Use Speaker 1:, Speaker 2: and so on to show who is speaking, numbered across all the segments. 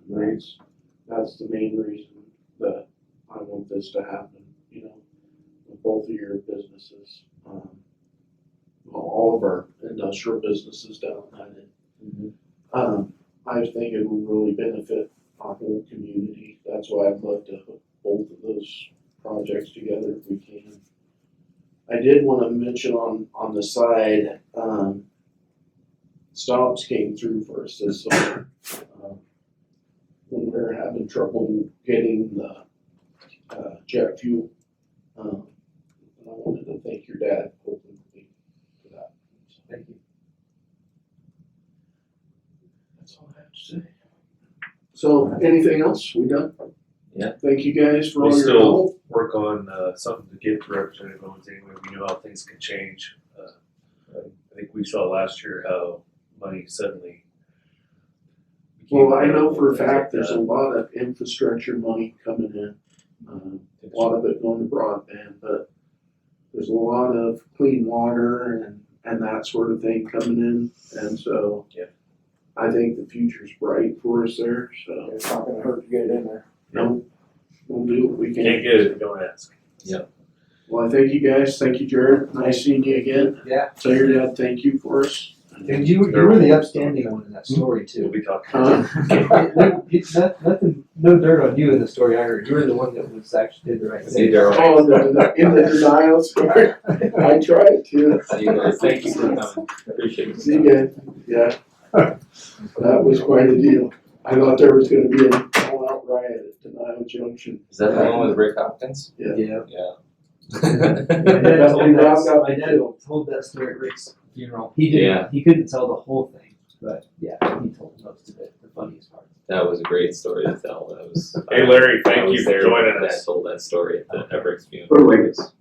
Speaker 1: experience, that's the main reason that I want this to happen, you know, with both of your businesses. um, Well, all of our industrial businesses down in Hyden. Um, I think it would really benefit our whole community. That's why I'd love to hook both of those projects together if we can. I did wanna mention on, on the side, um, stops came through for us this summer. um, When we were having trouble getting the, uh, jet fuel. Um, and I wanted to thank your dad openly for that. Thank you. That's all I have to say. So, anything else? We done?
Speaker 2: Yeah.
Speaker 1: Thank you guys for all
Speaker 3: We
Speaker 1: your
Speaker 3: still-
Speaker 1: help.
Speaker 3: work on uh, something to give to Representative Owens anyway. We know how things can change. Uh, I think we saw last year how money suddenly. became
Speaker 1: Well, I know for a
Speaker 3: available,
Speaker 1: fact,
Speaker 3: things
Speaker 1: there's a
Speaker 3: like
Speaker 1: lot of infrastructure money coming in, um, a lot of it going to broadband, but there's a lot of clean water and, and that sort of thing coming in, and so.
Speaker 3: Yeah.
Speaker 1: I think the future's bright for us there, so
Speaker 4: It's not gonna hurt to get it in there.
Speaker 1: we'll do what we
Speaker 3: that. Can't
Speaker 1: can.
Speaker 3: get it, if you don't ask.
Speaker 1: Well, I thank you guys, thank you Jared, nice seeing you again,
Speaker 4: Yeah.
Speaker 1: tell your dad thank you for us.
Speaker 4: And you, you were the upstanding one in that story
Speaker 3: We'll
Speaker 4: too.
Speaker 3: be talking.
Speaker 1: Huh?
Speaker 4: No- It's not, nothing, no dirt on you in the story, I heard, you were the one that was actually did the right
Speaker 2: See,
Speaker 4: thing.
Speaker 2: Daryl.
Speaker 1: Oh, in the- in the denials, I tried to.
Speaker 2: See you guys. Thank you for coming. Appreciate it.
Speaker 1: See you again. Yeah. That was quite a deal. I thought there was gonna be an all-out riot at Denial Junction.
Speaker 2: Is that the one with Rick Hopkins?
Speaker 4: Yeah.
Speaker 2: Yeah.
Speaker 4: My dad
Speaker 1: That's
Speaker 4: told
Speaker 1: when Rob
Speaker 4: that,
Speaker 1: got
Speaker 4: my
Speaker 1: me
Speaker 4: dad
Speaker 1: too.
Speaker 4: told that story at Rick's funeral, he
Speaker 2: Yeah.
Speaker 4: didn't, he couldn't tell the whole thing, but yeah, he told most of it, the funniest part.
Speaker 2: That was a great story to tell. That was.
Speaker 3: Hey Larry,
Speaker 2: I
Speaker 3: thank
Speaker 2: was
Speaker 3: you for
Speaker 2: there
Speaker 3: joining
Speaker 2: when I
Speaker 3: us.
Speaker 2: told that story at the Everett's funeral.
Speaker 5: But wait.
Speaker 2: It was-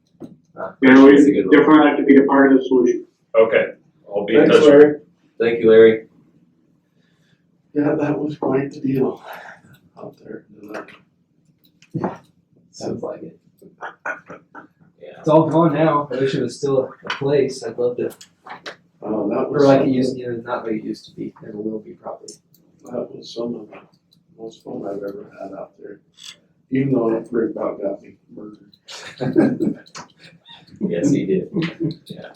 Speaker 2: uh,
Speaker 5: You know, we,
Speaker 2: It's a good one.
Speaker 5: they're proud to be a part of the solution.
Speaker 3: Okay, I'll be in
Speaker 1: Thanks,
Speaker 3: touch.
Speaker 1: Larry.
Speaker 2: Thank you, Larry.
Speaker 1: Yeah, that was quite the deal out there. Uh, at Denial.
Speaker 4: Sounds like it.
Speaker 2: Yeah.
Speaker 4: It's all gone now, I wish it was still a place, I'd love to,
Speaker 1: Oh, that
Speaker 4: or
Speaker 1: was,
Speaker 4: like it
Speaker 1: some-
Speaker 4: used, you know, not like it used to be, never will be probably.
Speaker 1: that was some of the most fun I've ever had out there. Even though it Rick about got me murdered.
Speaker 2: Yes, he did. Yeah.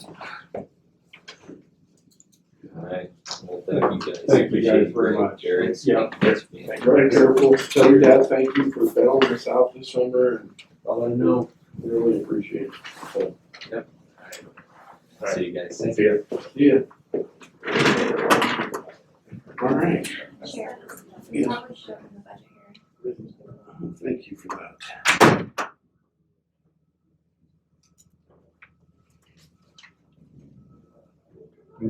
Speaker 2: All right. Well, thank you guys.
Speaker 1: Thank you guys
Speaker 2: Appreciate it.
Speaker 1: very much.
Speaker 2: Jared.
Speaker 1: Yeah.
Speaker 2: Thanks for being
Speaker 1: Very careful. Tell your dad thank you for bailing us out this summer and
Speaker 4: I'll let him know.
Speaker 1: really appreciate it. So,
Speaker 2: here. See you guys.
Speaker 3: See ya.
Speaker 1: See ya. All right.
Speaker 6: Chair, we
Speaker 1: Yes.
Speaker 6: probably should have in the budget here.
Speaker 1: Thank you for that. I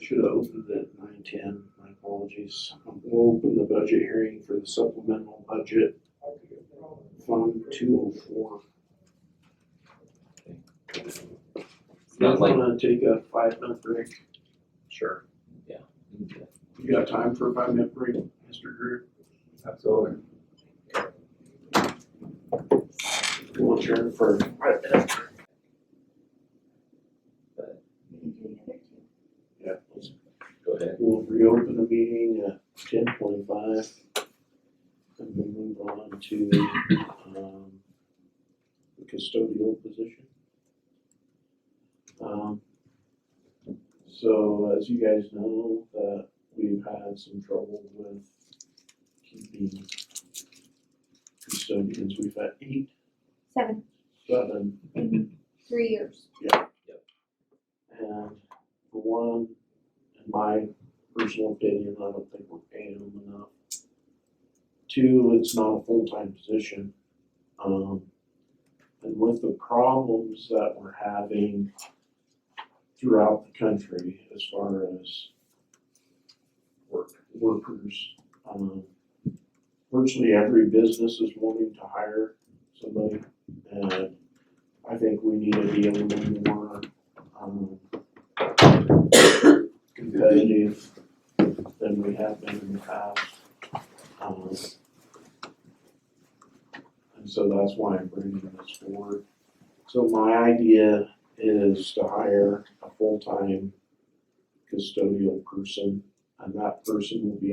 Speaker 1: Should have opened it at nine ten, my apologies. We'll open the budget hearing for the supplemental budget. Fund two oh four.
Speaker 2: Not like-
Speaker 1: Wanna take a five minute break?
Speaker 3: Sure.
Speaker 1: You got time for a five minute break, Mr. Drew?
Speaker 3: Absolutely.
Speaker 1: We'll adjourn for five minutes.
Speaker 6: We can do the other two.
Speaker 1: Yeah, let's
Speaker 2: Go ahead.
Speaker 1: We'll reopen the meeting at ten twenty-five. And we move on to, um, the custodial position. Um, so as you guys know, that we've had some trouble with keeping custodians. We've had eight,
Speaker 6: Seven,
Speaker 1: seven,
Speaker 6: in three years.
Speaker 1: And for one, in my personal opinion, I don't think we're paying them enough. Two, it's not a full-time position. Um, and with the problems that we're having throughout the country as far as work, workers, um, virtually every business is wanting to hire somebody. And I think we need to be a little more, um, competitive than we have been in the past. Um, And so that's why I'm bringing this forward. So my idea is to hire a full-time custodial person, and that person will be